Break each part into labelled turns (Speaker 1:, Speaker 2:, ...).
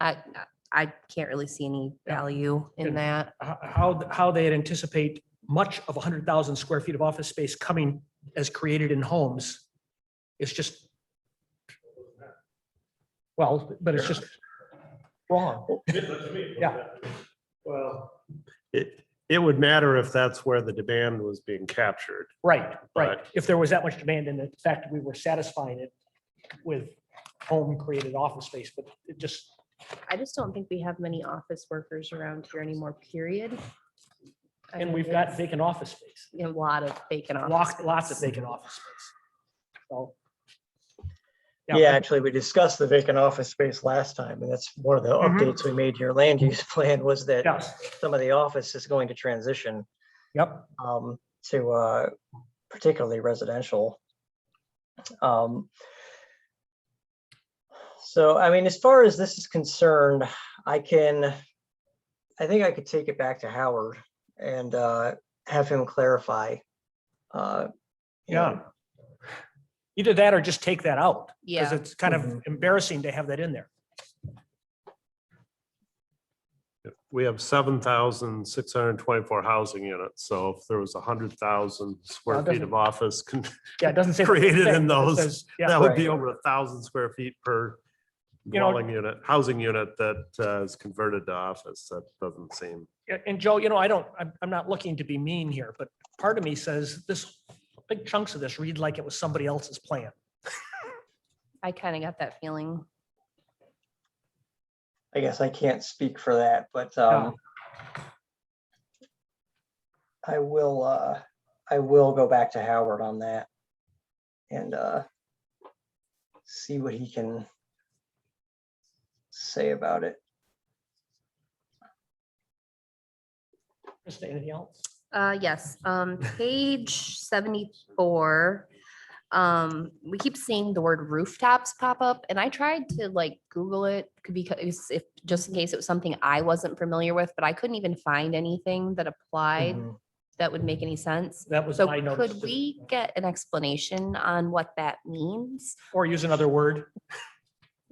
Speaker 1: I, I can't really see any
Speaker 2: Yeah.
Speaker 1: value in
Speaker 2: Good.
Speaker 1: that.
Speaker 2: h- how, how they'd anticipate much of hundred thousand square feet of office space coming as created in homes. It's just. Well, but it's just wrong. Yeah.
Speaker 3: Well, it, it would matter if that's where the demand was being captured.
Speaker 2: Right, right.
Speaker 3: Right.
Speaker 2: If there was that much demand and the fact that we were satisfying it with home created office space, but it just,
Speaker 1: I just don't think we have many office workers around here anymore, period. I
Speaker 2: and
Speaker 1: mean,
Speaker 2: we've got vacant office space,
Speaker 1: it's A lot of vacant office.
Speaker 2: lots, lots of vacant office space. So.
Speaker 4: Yeah, actually, we discussed the vacant office space last time, and that's one of the
Speaker 2: Mhm.
Speaker 4: updates we made to your land use plan was that
Speaker 2: Yes,
Speaker 4: some of the office is going to transition
Speaker 2: yep,
Speaker 4: um, to uh, particularly residential. Um, So, I mean, as far as this is concerned, I can, I think I could take it back to Howard and uh, have him clarify. uh, you know,
Speaker 2: yeah. Either that or just take that out. Because
Speaker 1: Yeah,
Speaker 2: it's kind of
Speaker 4: Mhm.
Speaker 2: embarrassing to have that in there.
Speaker 3: We have seven thousand six hundred and twenty-four housing units, so if there was a hundred thousand
Speaker 2: Well,
Speaker 3: square
Speaker 2: it
Speaker 3: feet of office, con-
Speaker 2: Yeah, it doesn't say.
Speaker 3: Created in
Speaker 2: It
Speaker 3: those.
Speaker 2: says- Yeah,
Speaker 3: that would
Speaker 4: right.
Speaker 3: be over a thousand square feet per
Speaker 2: You know-
Speaker 3: dwelling unit, housing unit that uh, is converted to office. That doesn't seem.
Speaker 2: Yeah, and Joe, you know, I don't, I'm, I'm not looking to be mean here, but part of me says this, big chunks of this read like it was somebody else's plan.
Speaker 1: I kind of got that feeling.
Speaker 4: I guess I can't speak for that, but um. I will, uh, I will go back to Howard on that. And uh. See what he can. Say about it.
Speaker 2: Krista, anything else?
Speaker 1: Uh, yes, um, page seventy-four. Um, we keep seeing the word rooftops pop up and I tried to like Google it because if, just in case it was something I wasn't familiar with, but I couldn't even find anything that applied
Speaker 2: Mm-hmm.
Speaker 4: Mhm.
Speaker 5: Mm-hmm.
Speaker 1: that would make any sense.
Speaker 2: That was
Speaker 1: So
Speaker 2: my notice.
Speaker 1: could
Speaker 2: too.
Speaker 1: we get an explanation on what that means?
Speaker 2: Or use another word.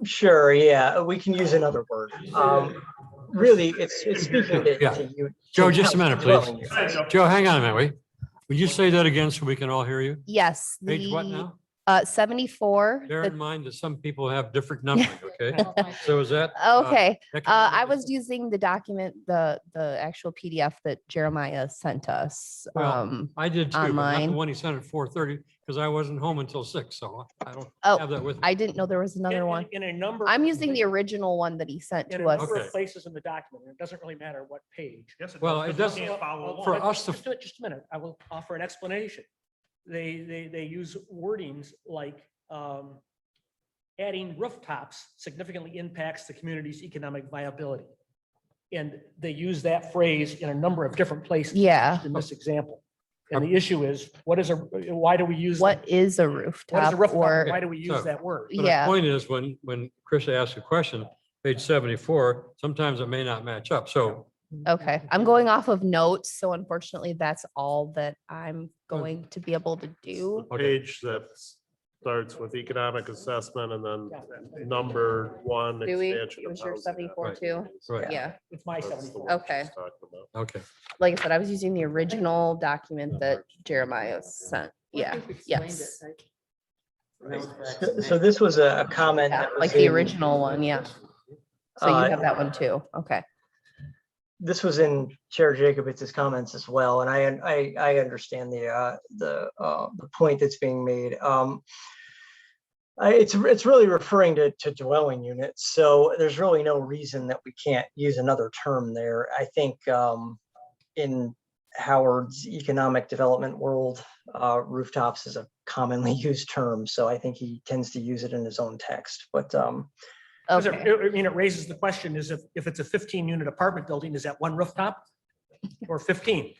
Speaker 4: Sure, yeah, we can use another word. Um, really, it's, it's speaking to.
Speaker 5: Yeah.
Speaker 4: to you- to
Speaker 5: Joe, just a
Speaker 4: how
Speaker 5: minute,
Speaker 4: you're
Speaker 5: please.
Speaker 4: dwelling here.
Speaker 5: Joe, hang on a minute, wait. Would you say that again so we can all hear you?
Speaker 1: Yes.
Speaker 5: Page what
Speaker 1: the,
Speaker 5: now?
Speaker 1: Uh, seventy-four.
Speaker 5: Bear
Speaker 1: the-
Speaker 5: in mind that some people have different numbering, okay? So is that?
Speaker 1: Oh, Okay, uh,
Speaker 5: economic-
Speaker 1: I was using the document, the, the actual PDF that Jeremiah sent us.
Speaker 5: Well,
Speaker 1: Um,
Speaker 5: I did too, but not the
Speaker 1: online.
Speaker 5: one he sent at four thirty, because I wasn't home until six, so I don't
Speaker 1: Oh,
Speaker 5: have that with me.
Speaker 1: I didn't know there was another
Speaker 2: In-
Speaker 1: one.
Speaker 2: In in a number.
Speaker 1: I'm using the original one that he sent
Speaker 2: In a
Speaker 1: to us.
Speaker 2: number of
Speaker 5: Okay.
Speaker 2: places in the document, and it doesn't really matter what page.
Speaker 5: Well, it doesn't, for us to-
Speaker 2: Just a- Just a minute, I will offer an explanation. They, they, they use wordings like, um, adding rooftops significantly impacts the community's economic viability. And they use that phrase in a number of different places.
Speaker 1: Yeah.
Speaker 2: In this example. And the issue is, what is a, why do we use?
Speaker 1: What is a
Speaker 2: What is a
Speaker 1: rooftop
Speaker 2: rooftop?
Speaker 1: or,
Speaker 2: Why do we use
Speaker 5: so-
Speaker 2: that word?
Speaker 5: But the
Speaker 1: yeah,
Speaker 5: point is, when, when Chris asks a question, page seventy-four, sometimes it may not match up, so.
Speaker 1: okay. I'm going off of notes, so unfortunately, that's all that I'm going to be able to do.
Speaker 5: Okay.
Speaker 3: Page that starts with economic assessment and then number one.
Speaker 1: Do we?
Speaker 3: expansion of
Speaker 1: Was your
Speaker 3: housing.
Speaker 1: 74 too?
Speaker 5: Right.
Speaker 1: Yeah.
Speaker 2: It's my
Speaker 3: That's the
Speaker 2: seventy-four.
Speaker 3: one she's
Speaker 1: Okay.
Speaker 3: talking about.
Speaker 5: Okay,
Speaker 1: Like I said, I was using the original document that Jeremiah sent. Yeah, yes.
Speaker 4: So- So this was a a comment.
Speaker 1: Yeah,
Speaker 4: that was
Speaker 1: Like the
Speaker 4: in,
Speaker 1: original one, yeah. So
Speaker 4: uh,
Speaker 1: you have that one too. Okay.
Speaker 4: this was in Chair Jacobitz's comments as well, and I, I, I understand the, uh, the, uh, the point that's being made. Um, I, it's, it's really referring to, to dwelling units, so there's really no reason that we can't use another term there. I think, um, in Howard's economic development world, uh, rooftops is a commonly used term, so I think he tends to use it in his own text, but, um,
Speaker 2: Because it-
Speaker 1: Okay.
Speaker 2: I mean, it raises the question is if, if it's a fifteen unit apartment building, is that one rooftop? Or fifteen?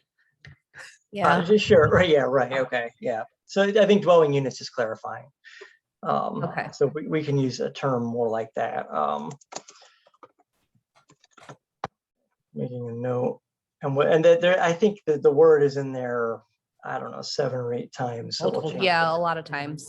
Speaker 1: Yeah.
Speaker 4: Uh, Sure, right, yeah, right, okay, yeah. So I think dwelling units is clarifying. Um,
Speaker 1: Okay.
Speaker 4: So we, we can use a term more like that. Um Making a note, and what, and that there, I think that the word is in there, I don't know, seven or eight times. so we'll
Speaker 2: Multiple
Speaker 4: change
Speaker 1: Yeah,
Speaker 4: it.
Speaker 1: a lot of times.